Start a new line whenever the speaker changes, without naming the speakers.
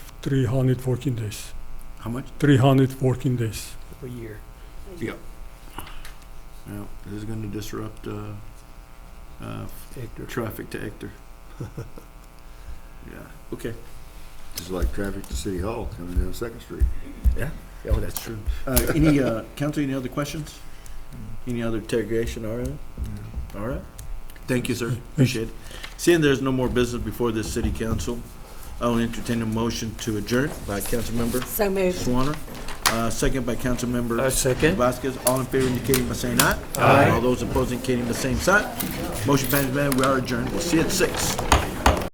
300 working days.
How much?
300 working days.
a year.
Well, this is gonna disrupt, uh, uh,
Hector.
traffic to Ector. Yeah, okay.
It's like traffic to City Hall coming down Second Street.
Oh, that's true. Uh, any, uh, council, any other questions? Any other interrogation, all right? All right. Thank you, sir. Appreciate it. Seeing there's no more business before this city council, I'll entertain a motion to adjourn by Councilmember
So moved.
Swanner, uh, second by Councilmember
A second.
Vasquez. All in favor indicating by saying aye. Aye. All those opposing indicating by saying aye. Motion passes, man. We are adjourned. We'll see you at six.